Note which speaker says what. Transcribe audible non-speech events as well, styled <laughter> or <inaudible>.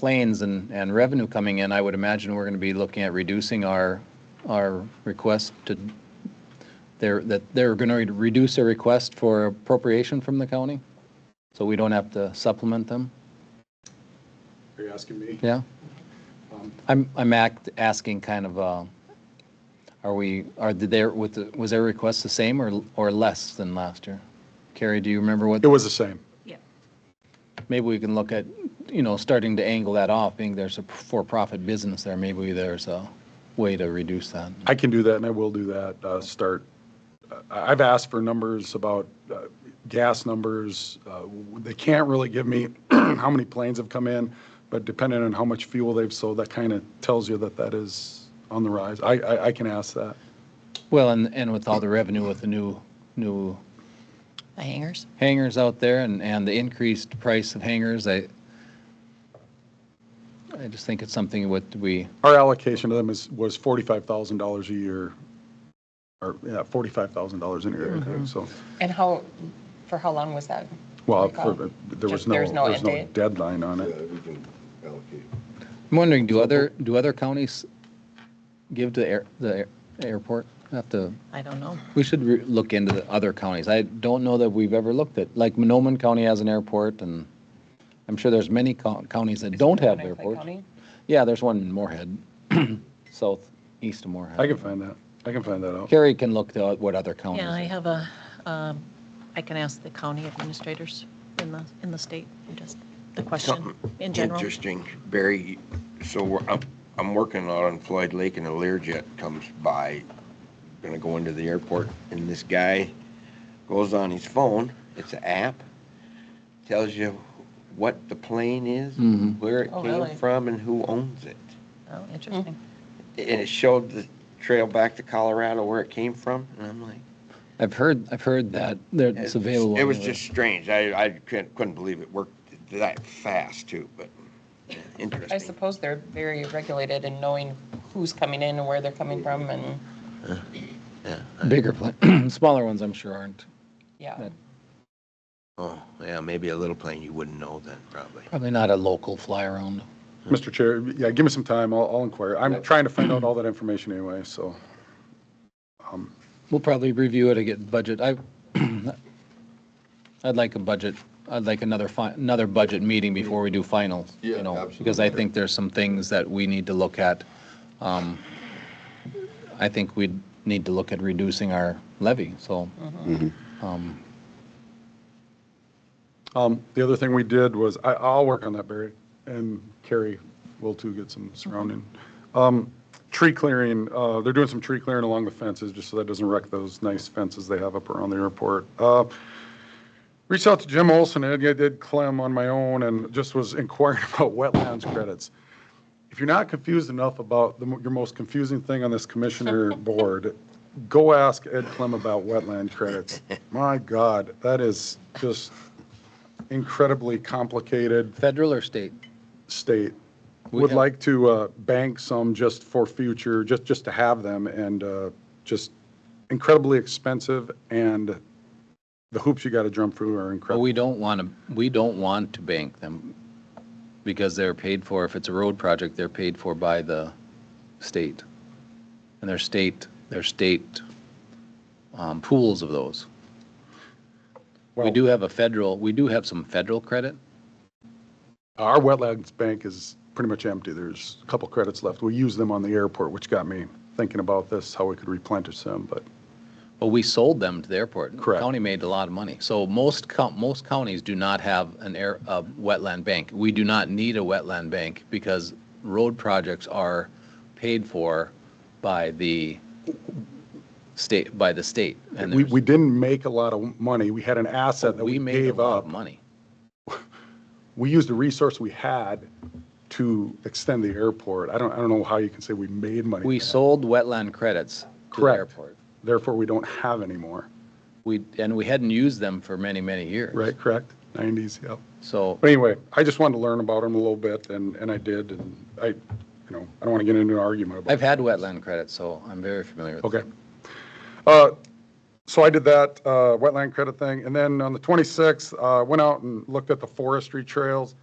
Speaker 1: planes and, and revenue coming in, I would imagine we're going to be looking at reducing our, our request to, they're, that they're going to reduce their request for appropriation from the county, so we don't have to supplement them,
Speaker 2: Are you asking me?
Speaker 1: yeah?
Speaker 2: Um,
Speaker 1: I'm, I'm act, asking kind of, uh, are we, are, did their, with, the- was their request the same or, or less than last year? Carrie, do you remember what?
Speaker 2: It was the same.
Speaker 3: Yep.
Speaker 1: maybe we can look at, you know, starting to angle that off, being there's a for-profit business there, maybe there's a way to reduce that.
Speaker 2: I can do that and I will do that, uh, start. uh, I- I've asked for numbers about uh, gas numbers. Uh, They can't really give me <clears throat> how many planes have come in, but depending on how much fuel they've sold, that kind of tells you that that is on the rise. I, I, I can ask that.
Speaker 1: Well, and, and with all the revenue with the new, new
Speaker 3: The hangers?
Speaker 1: hangars out there and, and the increased price of hangars, I, I just think it's something what we,
Speaker 2: Our allocation to them is, was $45,000 a year, or, yeah, $45,000 in a year, I
Speaker 4: Mm-hmm.
Speaker 2: think, so.
Speaker 4: And how, for how long was that?
Speaker 2: Well,
Speaker 4: Recall.
Speaker 2: for- there was
Speaker 4: Just-
Speaker 2: no, there
Speaker 4: there's no
Speaker 2: was
Speaker 4: end
Speaker 2: no
Speaker 4: date.
Speaker 2: deadline on
Speaker 5: Yeah,
Speaker 2: it.
Speaker 5: we can allocate.
Speaker 1: I'm wondering, do other, do other counties give to the air, the air- airport? Have to
Speaker 3: I don't know.
Speaker 1: We should re- look into the other counties. I don't know that we've ever looked at, like Monoman County has an airport and I'm sure there's many co- counties that don't have
Speaker 4: Winnebago
Speaker 1: airports.
Speaker 4: County?
Speaker 1: Yeah, there's one in Moorhead, <clears throat> southeast of Moorhead.
Speaker 2: I can find that. I can find that out.
Speaker 1: Carrie can look to what other counties.
Speaker 3: Yeah, I have a, um, I can ask the county administrators in the, in the state, just the question
Speaker 5: Something
Speaker 3: in general.
Speaker 5: Interesting, Barry, so we're- I'm, I'm working out on Floyd Lake and a Learjet comes by, gonna go into the airport, and this guy goes on his phone, it's an app, tells you what the plane is,
Speaker 1: Mhm.
Speaker 5: where it
Speaker 3: Oh, really?
Speaker 5: came from, and who owns it.
Speaker 3: Oh, interesting.
Speaker 5: And it showed the trail back to Colorado where it came from, and I'm like.
Speaker 1: I've heard, I've heard that. There- It's available.
Speaker 5: It was
Speaker 1: anywhere.
Speaker 5: just strange, I, I couldn't, couldn't believe it worked that fast too, but yeah, interesting.
Speaker 4: I suppose they're very regulated in knowing who's coming in and where they're coming from and,
Speaker 1: Bigger, pla- <clears throat> smaller ones I'm sure aren't,
Speaker 4: yeah.
Speaker 1: That-
Speaker 5: Oh, yeah, maybe a little plane you wouldn't know then, probably.
Speaker 1: probably not a local fly around.
Speaker 2: Mr. Chair, yeah, give me some time, I'll, I'll inquire. I'm trying to find out all that information anyway, so. um,
Speaker 1: We'll probably review it again, budget. I, <clears throat> I'd like a budget, I'd like another, fi- another budget meeting before we do finals. you
Speaker 5: Yeah,
Speaker 1: know,
Speaker 5: absolutely.
Speaker 1: Because I think there's some things that we need to look at. Um, I think we need to look at reducing our levy, so. um,
Speaker 2: Um, the other thing we did was, I, I'll work on that, Barry, and Carrie will too get some surrounding. Um, tree clearing, uh, they're doing some tree clearing along the fences, just so that doesn't wreck those nice fences they have up around the airport. Uh, Reached out to Jim Olson, and I did Clem on my own, and just was inquiring <laughs> about wetlands credits. If you're not confused enough about the, mo- your most confusing thing on this commissioner board, go ask Ed Clem about wetland credits. My God, that is just incredibly complicated
Speaker 1: Federal or state?
Speaker 2: state.
Speaker 1: We
Speaker 2: Would
Speaker 1: have-
Speaker 2: like to uh, bank some just for future, just, just to have them, and uh, just incredibly expensive, and the hoops you got to jump through are
Speaker 1: Well,
Speaker 2: incredible.
Speaker 1: we don't want to, we don't want to bank them because they're paid for, if it's a road project, they're paid for by the state. And their state, their state um, pools of those. We
Speaker 2: Well-
Speaker 1: do have a federal, we do have some federal credit.
Speaker 2: Our wetlands bank is pretty much empty. There's a couple credits left. We use them on the airport, which got me thinking about this, how we could replenish them, but
Speaker 1: Well, we sold them to the airport.
Speaker 2: Correct.
Speaker 1: County made a lot of money. So most, co- most counties do not have an air, a wetland bank. We do not need a wetland bank because road projects are paid for by the state, by the state. And
Speaker 2: we,
Speaker 1: there's-
Speaker 2: we didn't make a lot of money. We had an asset that we
Speaker 1: we made a
Speaker 2: gave
Speaker 1: lot
Speaker 2: up.
Speaker 1: of money.
Speaker 2: we used the resource we had to extend the airport. I don't, I don't know how you can say we made money.
Speaker 1: We
Speaker 2: back.
Speaker 1: sold wetland credits to the
Speaker 2: Correct.
Speaker 1: airport.
Speaker 2: Therefore, we don't have any more,
Speaker 1: We, and we hadn't used them for many, many years.
Speaker 2: right? Correct? 90s, yep.
Speaker 1: So,
Speaker 2: But anyway, I just wanted to learn about them a little bit and, and I did. And I, you know, I don't want to get into an argument about
Speaker 1: I've had wetland credits, so I'm very familiar with it.
Speaker 2: Okay. Uh, So I did that uh, wetland credit thing, and then on the 26th, uh, went out and looked at the forestry trails.